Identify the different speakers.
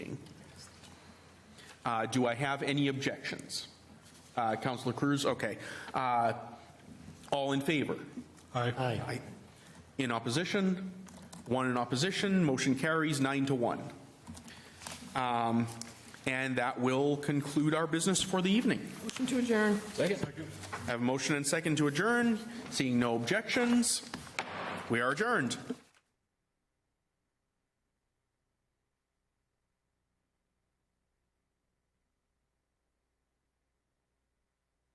Speaker 1: Uh, Do I have any objections? Uh, Counselor Cruz, okay. Uh, All in favor?
Speaker 2: Aye.
Speaker 1: Aye. In opposition? One in opposition, motion carries nine to one. Um, And that will conclude our business for the evening.
Speaker 3: Motion to adjourn.
Speaker 1: I have a motion and second to adjourn, seeing no objections. We are adjourned.